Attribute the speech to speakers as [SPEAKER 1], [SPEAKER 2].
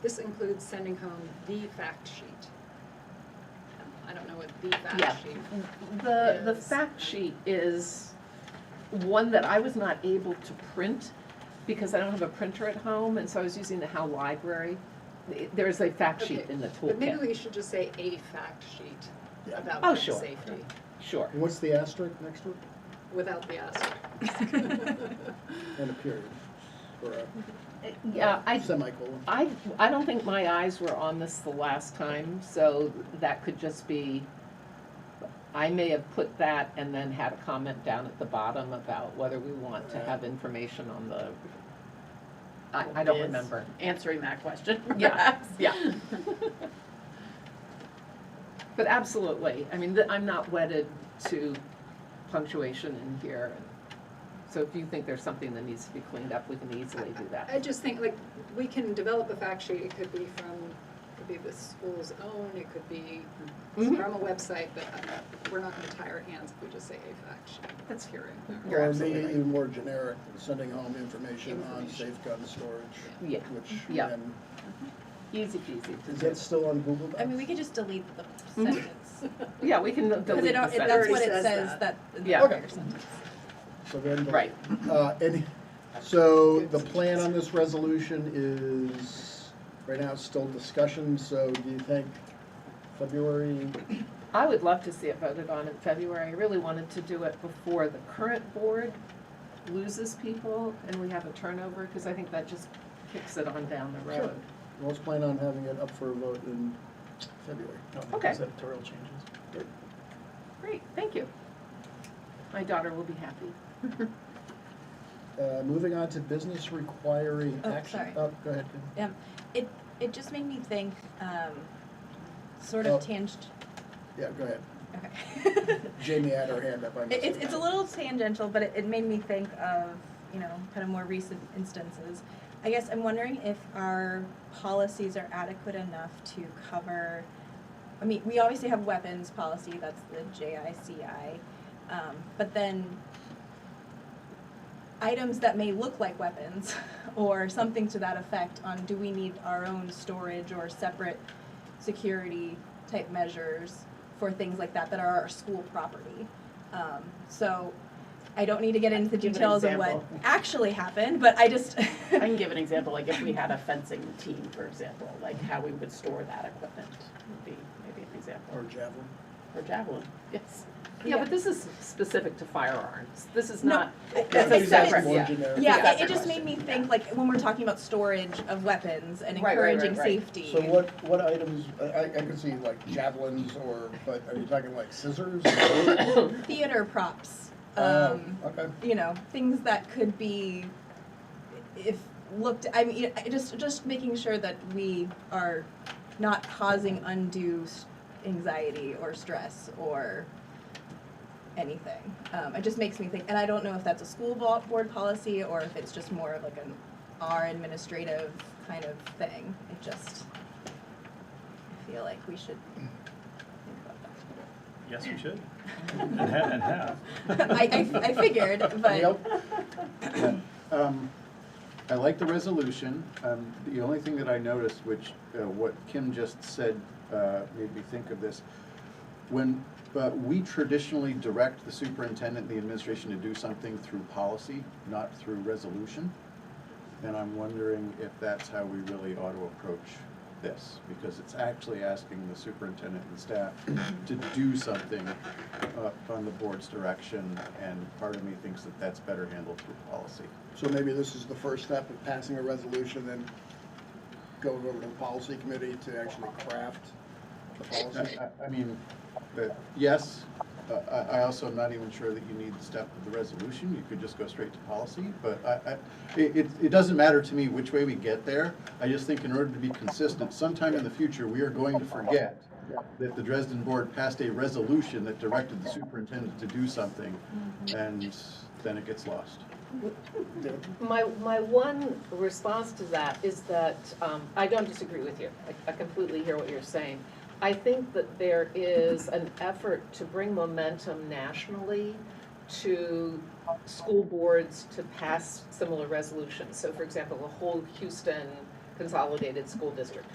[SPEAKER 1] includes sending home the fact sheet. Um, I don't know what the
[SPEAKER 2] Yeah.
[SPEAKER 1] fact sheet.
[SPEAKER 2] The, the
[SPEAKER 1] Yes.
[SPEAKER 2] fact sheet is one that I was not able to print because I don't have a printer at home, and so I was using the How Library. It- There is a fact sheet
[SPEAKER 1] Okay,
[SPEAKER 2] in the
[SPEAKER 1] But maybe
[SPEAKER 2] toolkit,
[SPEAKER 1] we should just say a fact sheet about
[SPEAKER 2] Oh,
[SPEAKER 1] gun
[SPEAKER 2] sure.
[SPEAKER 1] safety,
[SPEAKER 2] sure.
[SPEAKER 1] Uh,
[SPEAKER 3] And What's the asterisk next to it?
[SPEAKER 1] without the asterisk.
[SPEAKER 2] Uh,
[SPEAKER 3] And a period, or a
[SPEAKER 2] Yeah, I,
[SPEAKER 3] semicolon.
[SPEAKER 2] I, I don't think my eyes were on this the last time, so that could just be, I may have put that and then had a comment down at the bottom about whether we want to have information on the, I, I don't
[SPEAKER 4] Yes.
[SPEAKER 2] remember.
[SPEAKER 4] answering that question,
[SPEAKER 2] Yeah,
[SPEAKER 4] perhaps.
[SPEAKER 2] yeah. But absolutely, I mean, th- I'm not wedded to punctuation in here. So if you think there's something that needs to be cleaned up, we can easily do that.
[SPEAKER 1] I just think, like, we can develop a fact sheet, it could be from, it could be the school's own, it could be
[SPEAKER 2] Mhm.
[SPEAKER 1] from a website, but uh, we're not gonna tie our hands if we just say a fact sheet. That's here
[SPEAKER 2] You're
[SPEAKER 3] Or maybe
[SPEAKER 2] absolutely right.
[SPEAKER 3] even more generic, sending home information on
[SPEAKER 1] Information.
[SPEAKER 3] safe gun storage,
[SPEAKER 2] Yeah,
[SPEAKER 3] which,
[SPEAKER 2] Yeah.
[SPEAKER 3] and
[SPEAKER 2] easy peasy to
[SPEAKER 3] is
[SPEAKER 2] do.
[SPEAKER 3] that still on Google
[SPEAKER 4] I mean,
[SPEAKER 3] Docs?
[SPEAKER 4] we could just delete the
[SPEAKER 2] Mhm.
[SPEAKER 4] sentence.
[SPEAKER 2] Yeah, we can delete
[SPEAKER 4] Because it,
[SPEAKER 2] the
[SPEAKER 4] al- it- that's
[SPEAKER 2] sentence.
[SPEAKER 4] what it
[SPEAKER 1] Already says
[SPEAKER 4] says, that, in the
[SPEAKER 2] Yeah.
[SPEAKER 4] prior sentence.
[SPEAKER 3] So then, the-
[SPEAKER 2] Right.
[SPEAKER 3] uh, any, so the plan on this resolution is, right now it's still discussion, so do you think February,
[SPEAKER 2] I would love to see it voted on in February. I really wanted to do it before the current board loses people and we have a turnover, because I think that just kicks it on down the
[SPEAKER 3] Sure.
[SPEAKER 2] road.
[SPEAKER 3] let's plan on having it up for a vote in February.
[SPEAKER 2] Okay.
[SPEAKER 5] Editorial changes.
[SPEAKER 2] Great, thank you. My daughter will be happy.
[SPEAKER 3] Uh, moving on to business requiring
[SPEAKER 4] Oh,
[SPEAKER 3] action.
[SPEAKER 4] sorry.
[SPEAKER 3] go ahead. Kim.
[SPEAKER 4] Um, it, it just made me think, um, sort of
[SPEAKER 3] Oh.
[SPEAKER 4] tangent,
[SPEAKER 3] Yeah, go ahead.
[SPEAKER 4] okay.
[SPEAKER 3] Jamie had her hand up. I missed
[SPEAKER 4] It, it's,
[SPEAKER 3] it.
[SPEAKER 4] it's a little tangential, but it, it made me think of, you know, kind of more recent instances. I guess I'm wondering if our policies are adequate enough to cover, I mean, we obviously have weapons policy, that's the JICI. Um, but then items that may look like weapons or something to that effect on do we need our own storage or separate security type measures for things like that that are our school property. Um, so I don't need to get into the
[SPEAKER 5] Give an
[SPEAKER 4] details of what
[SPEAKER 5] example.
[SPEAKER 4] actually happened, but I just
[SPEAKER 5] I can give an example, like if we had a fencing team, for example, like how we would store that equipment would be maybe an example,
[SPEAKER 3] Or javelin.
[SPEAKER 5] or javelin, yes.
[SPEAKER 2] Yeah, but this is specific to firearms. This is
[SPEAKER 4] No,
[SPEAKER 2] not,
[SPEAKER 4] I-
[SPEAKER 2] That's
[SPEAKER 4] I-
[SPEAKER 2] a
[SPEAKER 4] I-
[SPEAKER 2] separate-
[SPEAKER 3] More
[SPEAKER 2] yeah.
[SPEAKER 3] generic.
[SPEAKER 4] Yeah, it,
[SPEAKER 2] Yeah.
[SPEAKER 4] it just made me think like when we're talking about storage of weapons and
[SPEAKER 5] Right, right, right,
[SPEAKER 4] encouraging
[SPEAKER 5] right.
[SPEAKER 4] safety.
[SPEAKER 3] So what, what items, I, I I could see like javelins or, but are you talking like scissors? Um,
[SPEAKER 4] Theater props.
[SPEAKER 5] Oh.
[SPEAKER 4] um,
[SPEAKER 3] Okay,
[SPEAKER 4] you know things that could be if looked i mean I- just just making sure that we are not causing undue s- anxiety or stress or anything um, it just makes me think and i don't know if that's a school bo- board policy or if it's just more of like an our administrative kind of thing it just i feel like we should think about that
[SPEAKER 6] Yes, we should. And have, and have.
[SPEAKER 4] I, I, I figured but
[SPEAKER 3] Yep.
[SPEAKER 7] Um, I like the resolution. Um, The only thing that I noticed, which, uh, what Kim just said, uh, made me think of this. When, uh, we traditionally direct the superintendent, and the administration to do something through policy, not through resolution. And I'm wondering if that's how we really ought to approach this, because it's actually asking the superintendent and staff to do something uh, on the board's direction, and part of me thinks that that's better handled through policy.
[SPEAKER 3] so maybe this is the first step of passing a resolution and going over to the policy committee to actually craft the policy.
[SPEAKER 7] I- I I mean, but yes, uh, I I also am not even sure that you need the step of the resolution. You could just go straight to policy, but I, I- it, it- it doesn't matter to me which way we get there. I just think in order to be consistent, sometime in the future, we are going to forget that the Dresden Board passed a resolution that directed the superintendent to do something, and then it gets lost.
[SPEAKER 2] My, my one response to that is that, um, I don't disagree with you. I- I completely hear what you're saying. I think that there is an effort to bring momentum nationally to school boards to pass similar resolutions. So for example, the whole Houston Consolidated School District